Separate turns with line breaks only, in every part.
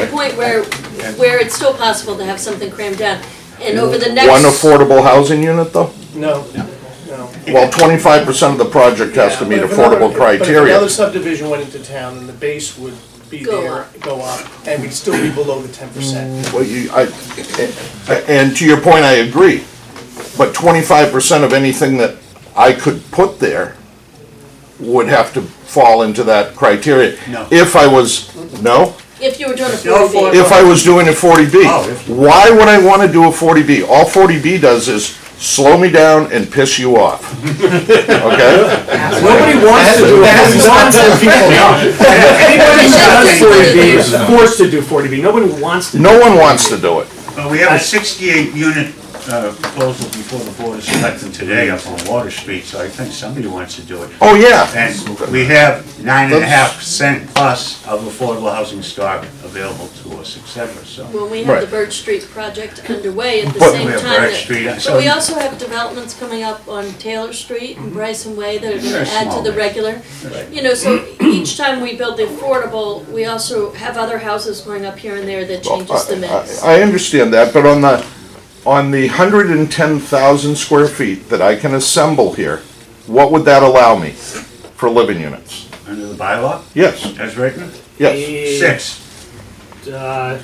the point where, where it's still possible to have something crammed down. And over the next.
One affordable housing unit though?
No, no.
Well, twenty-five percent of the project has to
Yeah,
meet
but if another-
affordable
But if
criteria.
another subdivision went into town, then the base would be
Go
there,
up.
go up, and we'd still be below the ten percent.
Mm.
Well, you, I, and to your point, I agree, but twenty-five percent of anything that I could put there would have to fall into that criteria.
No.
If I was, no?
If you were doing a
No,
forty B,
If I was doing a forty B.
Oh, if-
Why would I wanna do a forty B? All forty B does is slow me down and piss you off. Okay?
Nobody wants to do it.
That's nonsense, people. Anybody who does forty B is forced to do forty B, nobody wants to. do
No one wants to do it.
Well, we have a sixty-eight unit uh, proposal before the board of selectmen today up on Water Street, so I think somebody wants to do it.
Oh, yeah.
And we have nine and a half percent plus of affordable housing stock available to us, et cetera, so.
when we have the
Right.
Birch Street project underway at the
But
same
we have
time.
Birch
that-
Street,
But
so-
we also have developments coming up on Taylor Street and Bryson Way that are
Very
gonna add
small,
to the
yeah.
regular. You know, so each time we build the affordable, we also have other houses going up here and there that changes the mix.
I understand that, but on the, on the hundred and ten thousand square feet that I can assemble here, what would that allow me for living units?
Under the bylaw,
Yes,
as written,
yes.
six.
Uh,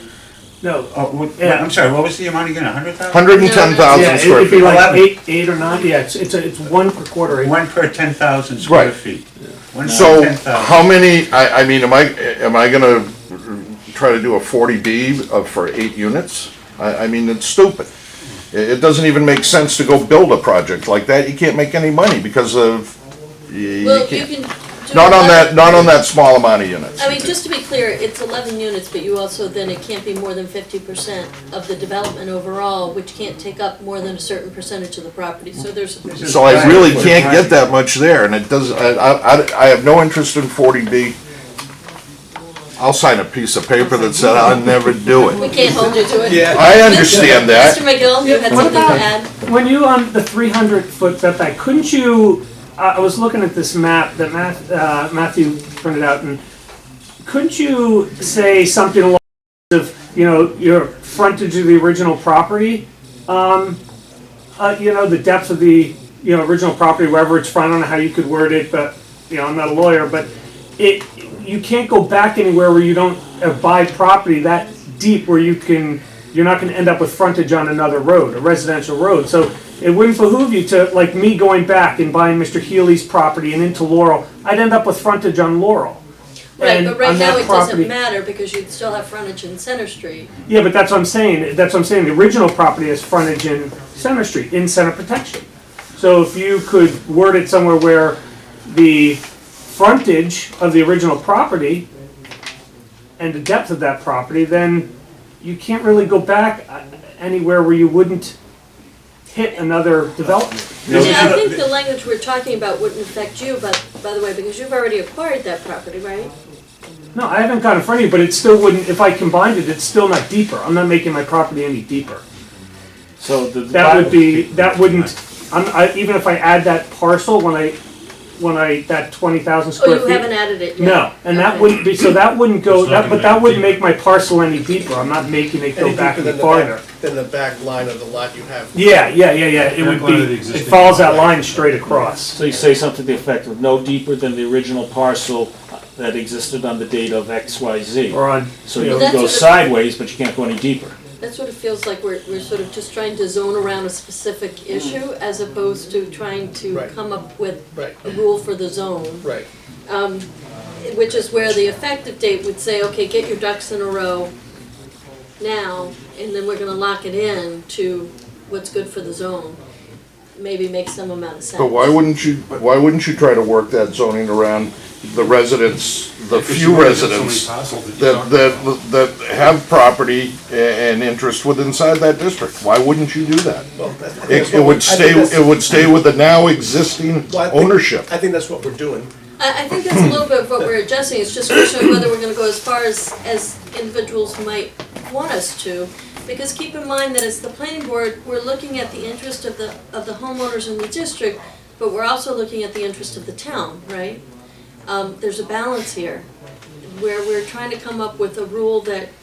No,
Oh, what-
Yeah.
I'm sorry, what was the amount again, a hundred thousand?
Hundred and ten
yeah,
thousand square
it'd be
feet.
like
Eleven.
eight, eight or nine, yeah, it's, it's, a- it's one per quarter acre.
One per ten thousand square
Right.
feet. One per
So
10,000.
how many, I, I mean, am I, am I gonna try to do a forty B of, for eight units? I, I mean, it's stupid. It, it doesn't even make sense to go build a project like that. You can't make any money because of, you-
Well,
you
you
can't.
can do.
Not on
eleven-
that, not on that small amount of units.
I mean, just to be clear, it's eleven units, but you also, then it can't be more than fifty percent of the development overall, which can't take up more than a certain percentage of the property, so there's.
So I really can't get that much there, and it does, I, I, I have no interest in forty B. I'll sign a piece of paper that said I'll never do
We
it.
can't hold you to it.
I understand
Mr.
that.
McGill, you had
What
something to
about-
add?
When you on the 300 foot setback, couldn't you? uh, I I was looking at this map that Math, uh, Matthew printed out, and couldn't you say something along the lines of you know your frontage of the original property, um, uh, you know the depth of the you know original property, wherever it's from. I don't know how you could word it, but you know I'm not a lawyer, but it you can't go back anywhere where you don't uh, buy property that deep where you can you're not going to end up with frontage on another road a residential road so it wouldn't behoove you to like me going back and buying mr healy's property and into laurel i'd end up with frontage on laurel
Right,
And
but right
on
now
that
it
property-
doesn't matter because you'd still have frontage in Center Street.
yeah but that's what i'm saying that's what i'm saying the original property has frontage in center street in center protection so if you could word it somewhere where the frontage of the original property and the depth of that property, then you can't really go back uh, anywhere where you wouldn't hit another development.
Yeah, I
but-
think the language we're talking about wouldn't affect you, but, by the way, because you've already acquired that property, right?
No, I haven't got in front of you, but it still wouldn't, if I combined it, it's still not deeper. I'm not making my property any deeper.
So the.
That would be, that wouldn't, I'm, I, even if I add that parcel, when I, when I, that twenty thousand
Oh,
square
you
feet.
haven't added it yet?
No, and that
Okay.
wouldn't be, so that wouldn't go,
It's not
that, but
gonna
that
make it
wouldn't make my parcel any deeper, I'm not making it go
Any
back
deeper
any
than the back-
farther.
Than the back line of the lot you have.
Yeah, yeah, yeah, yeah, it would
going to
be,
the
it
existing-
follows that line straight across.
So you say something to the effect of no deeper than the original parcel that existed on the date of X, Y, Z.
Or on,
So you
Well,
can
that's
go
what the-
sideways, but you can't go any deeper.
That's what it feels like, we're, we're sort of just trying to zone around a specific issue as opposed to trying to
Mm. Right.
come up with
Right,
a rule for the zone.
right.
um, which is where the effective date would say, okay, get your ducks in a row now, and then we're gonna lock it in to what's good for the zone. Maybe make some amount of sense.
But why wouldn't you, why wouldn't you try to work that zoning around the residents, the few residents that, that, that have property a- and interest with inside that district? Why wouldn't you do that?
Well, that-
It,
that's what
it
we- I
would
think
stay,
that's-
it would stay with the now existing
Well, I think-
ownership.
I think that's what we're doing.
I, I think that's a little bit of what we're adjusting, it's just showing whether we're gonna go as far as, as individuals might want us to. Because keep in mind that as the planning board, we're looking at the interest of the, of the homeowners in the district, but we're also looking at the interest of the town, right? Um, there's a balance here, where we're trying to come up with a rule that